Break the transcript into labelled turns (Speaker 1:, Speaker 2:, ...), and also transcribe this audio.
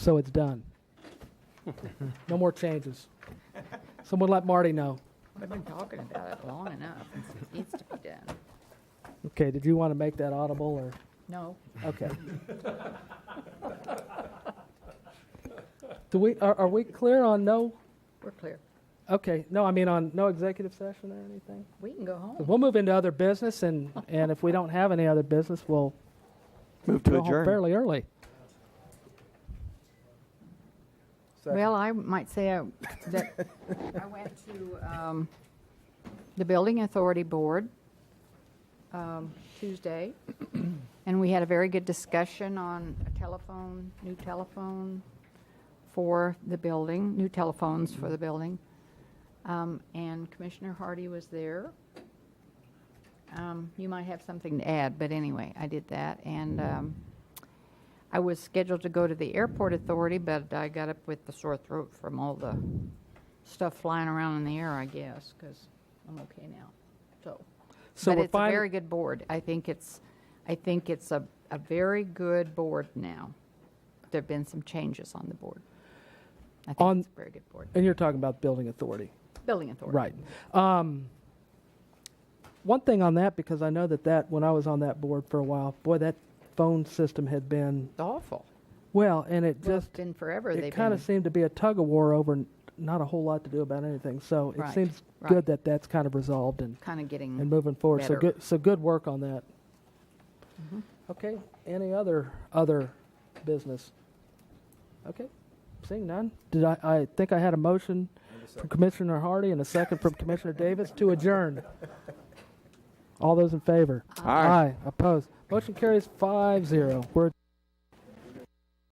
Speaker 1: So it's done. No more changes. Someone let Marty know.
Speaker 2: We've been talking about it long enough. It needs to be done.
Speaker 1: Okay, did you want to make that audible or?
Speaker 2: No,
Speaker 1: Okay. Do we, are, are we clear on no?
Speaker 2: we're clear.
Speaker 1: Okay, no, I mean on no executive session or anything?
Speaker 2: We can go
Speaker 1: 'Cause
Speaker 2: home.
Speaker 1: We'll move into other business and, and if we don't have any other business, we'll
Speaker 3: Move to
Speaker 1: go home
Speaker 3: adjourn.
Speaker 1: fairly early.
Speaker 2: Well, I might say I- that I went to um, the Building Authority Board um, Tuesday, and we had a very good discussion on a telephone, new telephone for the building, new telephones for the building. Um, And Commissioner Hardy was there. Um, You might have something to add, but anyway, I did that. And um, I was scheduled to go to the airport authority, but I got up with the sore throat from all the stuff flying around in the air, I guess, because I'm okay now. So,
Speaker 1: So
Speaker 2: but
Speaker 1: we're
Speaker 2: it's a
Speaker 1: fine-
Speaker 2: very good board. I think it's, I think it's a, a very good board now. There've been some changes on the board. I
Speaker 1: On-
Speaker 2: think it's a very good board.
Speaker 1: And you're talking about building authority.
Speaker 2: Building authority.
Speaker 1: Right. Um, one thing on that, because I know that that, when I was on that board for a while, boy, that phone system had been,
Speaker 2: It's awful.
Speaker 1: well, and it
Speaker 2: Well, it's
Speaker 1: just,
Speaker 2: been forever.
Speaker 1: it
Speaker 2: They've
Speaker 1: kind
Speaker 2: been,
Speaker 1: of seemed to be a tug of war over n- not a whole lot to do about anything. So it
Speaker 2: Right,
Speaker 1: seems
Speaker 2: right.
Speaker 1: good that that's kind of resolved and,
Speaker 2: kind of
Speaker 1: and
Speaker 2: getting,
Speaker 1: moving forward. So
Speaker 2: Better.
Speaker 1: good, so good work on that.
Speaker 2: Mhm.
Speaker 1: Okay. Any other other business? Okay. Seeing none. Did I? I think I had a motion from Commissioner Hardy and a second from Commissioner Davis to adjourn. All those in favor?
Speaker 3: Aye.
Speaker 1: Aye. Opposed. Motion carries 5-0. We're